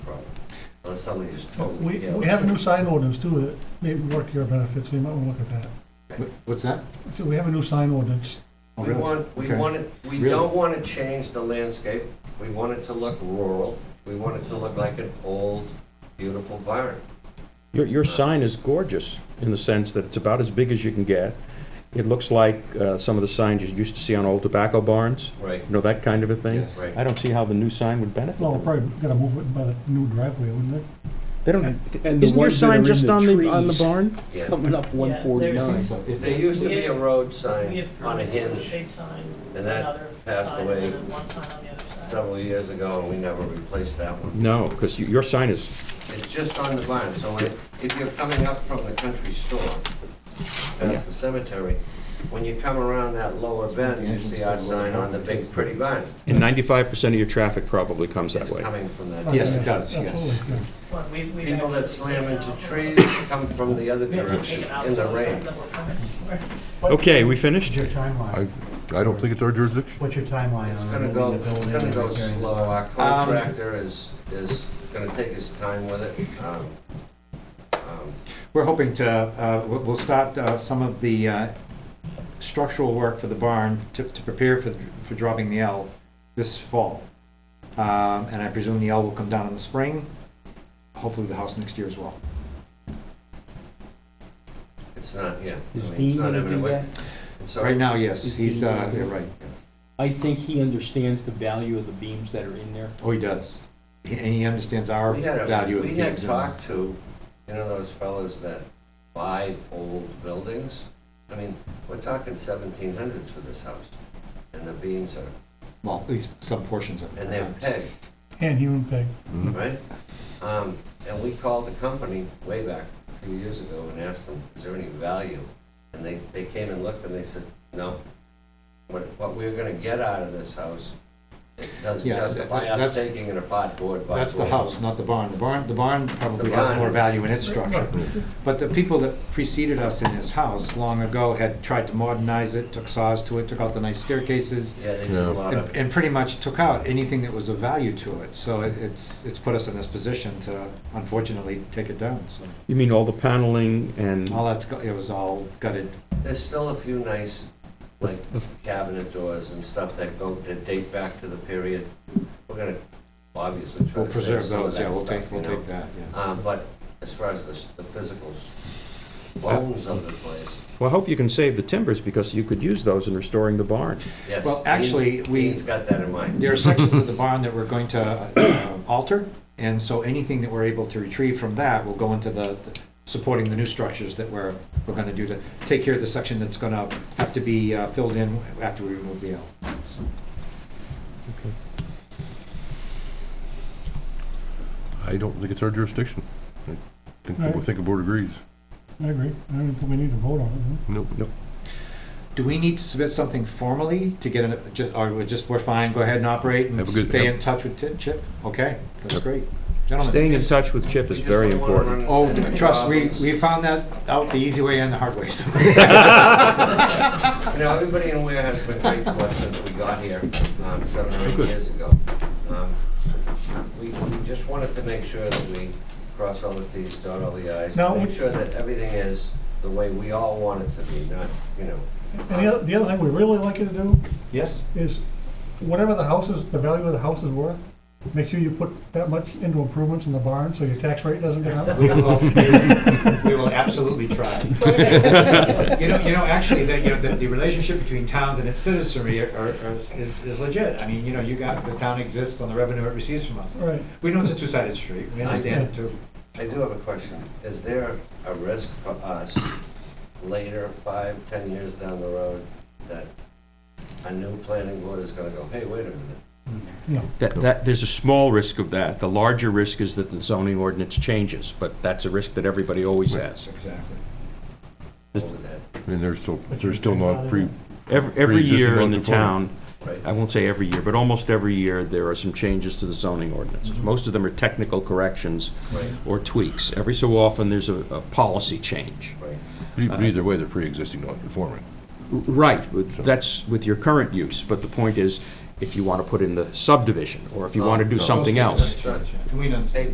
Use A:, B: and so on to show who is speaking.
A: unless somebody is
B: We,
A: totally ill.
B: we have a new sign ordinance too that may work to your benefit, so you might want to look at that.
C: Wh- What's that?
B: So we have a new sign ordinance.
C: Oh,
A: We
C: really?
A: want, we
C: Okay.
A: want it, we
C: Really?
A: don't want to change the landscape. We want it to look rural. We want it to look like an old, beautiful barn.
D: Your, your sign is gorgeous in the sense that it's about as big as you can get. It looks like uh, some of the signs you used to see on old tobacco barns,
A: Right.
D: you know, that kind of a thing.
C: Yes.
A: Right.
D: I don't see how the new sign would benefit.
B: Well,
D: them.
B: probably gotta move it by the new driveway, wouldn't it?
D: They don't,
E: And the
D: isn't your
E: ones that are
D: sign
E: in
D: just on the, on the
E: trees
D: barn?
A: Yeah.
E: Coming up one
F: Yeah,
E: forty-nine.
C: So is
A: There
C: there-
A: used to be a road
F: We
A: sign
F: have
A: on a
F: permits for the
A: hinge
F: big sign,
A: and that
F: another
A: passed
F: sign,
A: away.
F: and then one sign on the other side.
A: several years ago, and we never replaced that one.
D: No, because your sign is,
A: It's just on the barn, so when- if you're coming up from the country store, past the cemetery, when you come around that lower bend, you see our sign on the big pretty barn.
D: and 95% of your traffic probably comes that
A: It's
D: way.
A: coming from that.
C: Yes, it does, yes.
B: Absolutely, yeah.
F: Look, we- we've
A: People
F: actually
A: that slam
F: taken out-
A: into trees come from the other
F: We have to take
A: direction,
F: out
A: in the
F: those
A: rain.
F: signs that were permitted for.
D: Okay, we finished?
G: What's your timeline?
H: I don't think it's our jurisdiction.
G: What's your timeline
A: It's
G: on
A: gonna
G: removing
A: go,
G: the building?
A: it's gonna
G: and
A: go
G: repairing the
A: slow.
G: barn?
A: Our contractor is, is gonna take his time with it. Um, um,
C: We're hoping to, uh, we'll we'll start uh, some of the uh, structural work for the barn to to prepare for for dropping the L this fall. Um, And I presume the L will come down in the spring, hopefully the house next year as well.
A: It's not, yeah. I mean,
E: Is
A: it's
E: Dean
A: not
E: gonna do
A: imminent.
E: that?
A: It's all
C: Right now, yes,
E: Is
C: he's,
E: he-
C: uh, yeah, right.
E: I think he understands the value of the beams that are in there.
C: Oh, he does. He- And he understands our
A: We had a-
C: value of uh, the
A: We had
C: games.
A: talked to, you know, those fellows that buy old buildings. I mean, we're talking seventeen hundreds for this house, and the beams are,
C: Well, at least some portions of it.
A: and they're peg,
B: And human peg.
A: right? Um, and we called the company way back a few years ago and asked them, is there any value? And they, they came and looked and they said, no. What, what we're gonna get out of this house, it doesn't
C: Yeah, that-
A: justify us
C: that's-
A: taking it apart board by board.
C: That's the house, not the barn. The barn, the barn probably
A: The
C: has
A: barn
C: more
A: is-
C: value in its structure. But the people that preceded us in this house long ago had tried to modernize it, took saws to it, took out the nice staircases,
A: Yeah, they did a
H: Yeah.
A: lot
C: and
A: of,
C: and pretty much took out anything that was of value to it. So it- it's, it's put us in this position to unfortunately take it down, so.
D: You mean all the paneling and,
C: All that's, go- it was all gutted.
A: there's still a few nice, like, cabinet doors and stuff that go, that date back to the period. We're gonna obviously try
C: We'll
A: to save
C: preserve
A: some of
C: those, yeah,
A: that
C: we'll
A: stuff,
C: take, we'll
A: you know.
C: take that, yes.
A: Um, but as far as the, s- the physical s- bones of the place,
D: well, I hope you can save the timbers because you could use those in restoring the barn.
A: yes.
C: Well, actually,
A: Dean's-
C: we-
A: Dean's got that in mind.
C: There are sections of the barn that we're going to uh, alter, and so anything that we're able to retrieve from that will go into the, supporting the new structures that we're, we're gonna do to take care of the section that's gonna have to be uh, filled in after we remove the L. So,
H: I don't think it's our jurisdiction. I think, the- I
B: Alright.
H: think the board agrees.
B: I agree. I don't think we need to vote on it. huh?
H: Nope.
C: Do we need to submit something formally to get, an- ju- or we're just, we're fine, go ahead and operate and
H: Have a good-
C: stay in touch with Ti- Chip? Okay, that's
H: Yep.
C: great. Gentlemen,
D: Staying in touch with Chip is very important.
C: oh, trust, we, we found that out the easy way and the hard way, so.
A: You know, everybody in Ware has been great to us since we got here, um, seven or eight
H: Good.
A: years ago. Um, We, we just wanted to make sure that we cross all the Ts, dot all the Is,
B: Now,
A: make
B: would-
A: sure that everything is the way we all want it to be, not, you know.
B: And the other, the other thing we really like you to do
C: Yes?
B: is whatever the house is, the value of the house is worth, make sure you put that much into improvements in the barn so your tax rate doesn't go up.
C: We will, we will absolutely try. You know, you know, actually, the, you know, the, the relationship between towns and its citizenry are, are, is, is legit. I mean, you know, you got, the town exists on the revenue it receives from us.
B: Right.
C: We know it's a two-sided street, we understand it too.
A: I do have a question. Is there a risk for us later, five, ten years down the road, that a new planning board is gonna go, hey, wait a minute,
B: No.
D: That, that, there's a small risk of that. The larger risk is that the zoning ordinance changes, but that's a risk that everybody always has.
C: Exactly.
A: over that,
H: And they're still, they're still not pre,
D: Every, every year in the
H: Pre-existing
D: town,
A: right?
D: I won't say every year, but almost every year, there are some changes to the zoning ordinances. Most of them are technical corrections
A: Right.
D: or tweaks. Every so often, there's a, a policy change.
A: Right.
H: but either way, they're pre-existing non-conforming.
D: Right, but that's with your current use, but the point is, if you want to put in the subdivision, or if you want to do
A: Oh,
H: No.
D: something else.
A: Sure.
C: And we understand.